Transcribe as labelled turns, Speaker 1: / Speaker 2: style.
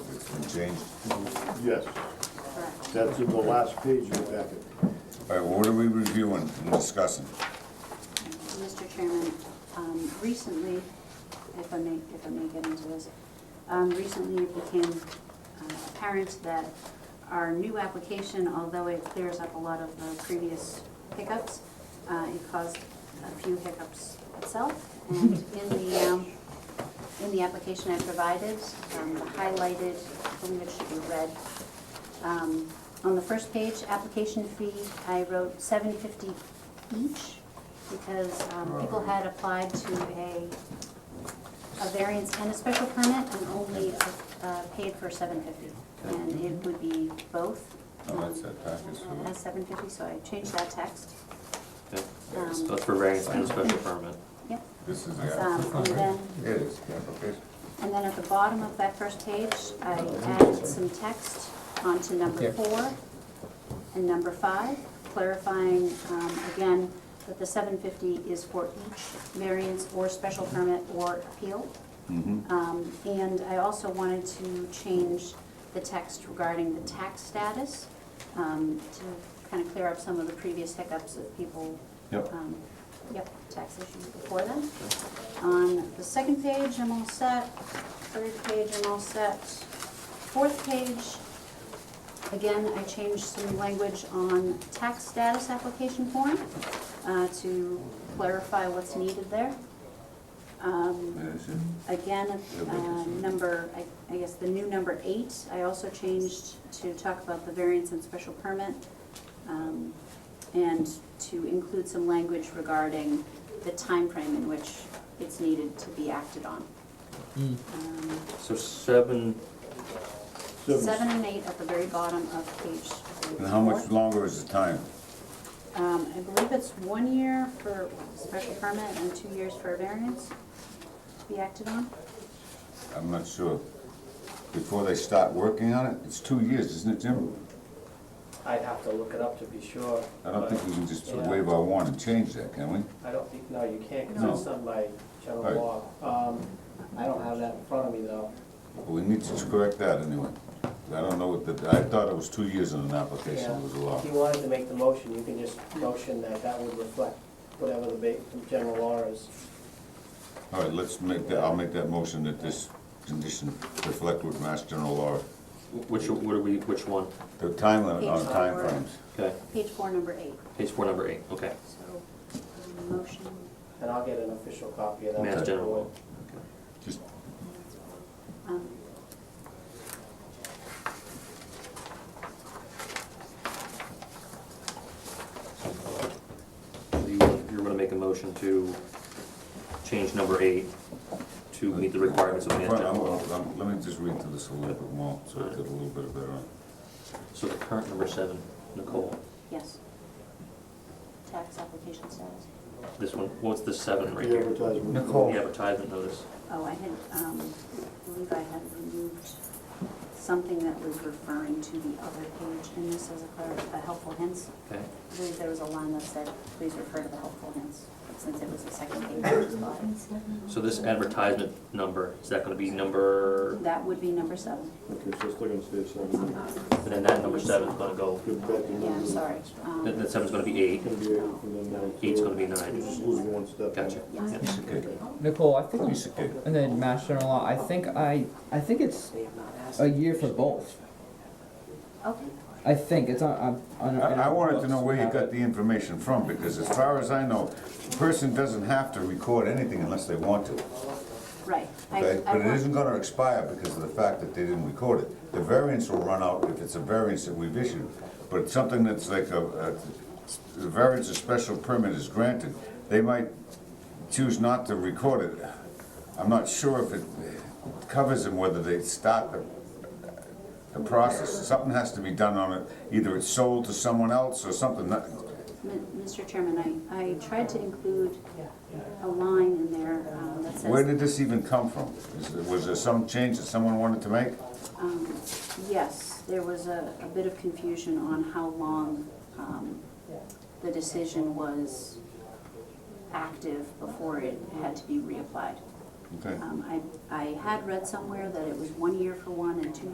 Speaker 1: changed.
Speaker 2: Yes, that's in the last page of the packet.
Speaker 1: All right, well, what are we reviewing and discussing?
Speaker 3: Mr. Chairman, um, recently, if I may, if I may get into this, um, recently it became uh, apparent that our new application, although it clears up a lot of the previous hiccups, uh, it caused a few hiccups itself. And in the, um, in the application I provided, um, the highlighted, I believe it should be red, um, On the first page, application fee, I wrote seven fifty each because
Speaker 4: Oh.
Speaker 3: um, people had applied to a, a variance and a special permit and only uh, paid for seven fifty. And it would be both.
Speaker 1: Oh, that's
Speaker 3: um,
Speaker 1: that package, so-
Speaker 3: As seven fifty, so I changed that text.
Speaker 4: Yeah,
Speaker 3: Um,
Speaker 4: that's for variance and special permit.
Speaker 3: Yep.
Speaker 1: This is
Speaker 3: Um,
Speaker 1: the application.
Speaker 3: and then-
Speaker 1: It is, the application.
Speaker 3: And then at the bottom of that first page, I added some text onto number four and number five, clarifying, um, again, that the seven fifty is for each variance or special permit or appeal. Um, and I also wanted to change the text regarding the tax status, um, to kind of clear up some of the previous hiccups of people.
Speaker 1: Yep.
Speaker 3: um, Yep, tax issues before them. On the second page, I'm all set. Third page, I'm all set. Fourth page, again, I changed some language on tax status application form, uh, to clarify what's needed there. Um,
Speaker 1: That is it.
Speaker 3: Again,
Speaker 1: Yeah, we
Speaker 3: uh,
Speaker 1: can see.
Speaker 3: number, I- I guess the new number eight, I also changed to talk about the variance and special permit, um, and to include some language regarding the time frame in which it's needed to be acted on. Um,
Speaker 4: So seven,
Speaker 3: Seven and eight at the very bottom of page four.
Speaker 1: And how much longer is the time?
Speaker 3: Um, I believe it's one year for special permit and two years for a variance to be acted on.
Speaker 1: I'm not sure. Before they start working on it, it's two years, isn't it, Jim?
Speaker 5: I'd have to look it up to be sure.
Speaker 1: I don't
Speaker 5: but
Speaker 1: think we can just
Speaker 5: Yeah.
Speaker 1: waive our warrant and change that, can we?
Speaker 5: I don't think, no, you can't,
Speaker 1: No.
Speaker 5: because it's done by
Speaker 1: Right.
Speaker 5: general law. Um, I don't have that in front of me, though.
Speaker 1: But we need to correct that anyway. I don't know what the, I thought it was two years on an application,
Speaker 5: Yeah.
Speaker 1: it was a law.
Speaker 5: If you wanted to make the motion, you can just motion that that would reflect whatever the ba, the general law is.
Speaker 1: All right, let's make that, I'll make that motion that this condition reflect with Mass General law,
Speaker 4: wh- which, what are we, which one?
Speaker 1: the time limit on
Speaker 3: Page four.
Speaker 1: timeframes.
Speaker 4: Okay,
Speaker 3: Page four, number eight.
Speaker 4: page four, number eight, okay.
Speaker 3: So, um, motion,
Speaker 5: And I'll get an official copy of that.
Speaker 4: Mass
Speaker 5: to the
Speaker 4: general
Speaker 5: board.
Speaker 4: law. Okay.
Speaker 1: Just,
Speaker 3: um,
Speaker 4: So you, you're gonna make a motion to change number eight to meet the requirements of mass
Speaker 1: Fine, I'm-
Speaker 4: general law.
Speaker 1: I'm- Let me just read through this a little bit more, so I get a little bit better on.
Speaker 4: So the current number seven, Nicole,
Speaker 3: yes. Tax application status.
Speaker 4: this one, what's the seven
Speaker 2: The
Speaker 4: right here?
Speaker 2: advertisement.
Speaker 1: Nicole.
Speaker 4: The advertisement notice.
Speaker 3: Oh, I had, um, I believe I had removed something that was referring to the other page, and this is a clar- a helpful hints.
Speaker 4: Okay,
Speaker 3: I believe there was a line that said, please refer to the helpful hints, since it was the second page of the slide.
Speaker 4: so this advertisement number, is that gonna be number,
Speaker 3: That would be number seven.
Speaker 2: Okay, so it's still gonna stay seven.
Speaker 4: and then that number seven's gonna go,
Speaker 2: Get back to
Speaker 3: Yeah, I'm
Speaker 2: number-
Speaker 3: sorry. Um,
Speaker 4: that, that seven's gonna be eight,
Speaker 2: It's gonna be eight and then nine.
Speaker 4: Eight's gonna be nine.
Speaker 2: You just lose one step.
Speaker 4: gotcha,
Speaker 3: Yes.
Speaker 4: yeah.
Speaker 1: Okay.
Speaker 6: Nicole, I think,
Speaker 1: Piece of cake.
Speaker 6: and then Mass General Law, I think I, I think it's a year for both.
Speaker 3: Okay,
Speaker 6: I think, it's on, on. on-
Speaker 1: I, I wanted to know where you got the information from, because as far as I know, a person doesn't have to record anything unless they want to.
Speaker 3: right. I-
Speaker 1: Okay,
Speaker 3: I
Speaker 1: but it
Speaker 3: want-
Speaker 1: isn't gonna expire because of the fact that they didn't record it. The variance will run out if it's a variance that we've issued, but it's something that's like a, a, the variance or special permit is granted, they might choose not to record it. I'm not sure if it covers them whether they start the, the process. Something has to be done on it, either it's sold to someone else or something, that-
Speaker 3: M- Mr. Chairman, I, I tried to include a line in there um, that
Speaker 1: Where
Speaker 3: says,
Speaker 1: did this even come from? Is there- Was there some change that someone wanted to make?
Speaker 3: um, yes, there was a, a bit of confusion on how long, um, the decision was active before it had to be reapplied.
Speaker 1: Okay.
Speaker 3: Um, I, I had read somewhere that it was one year for one and two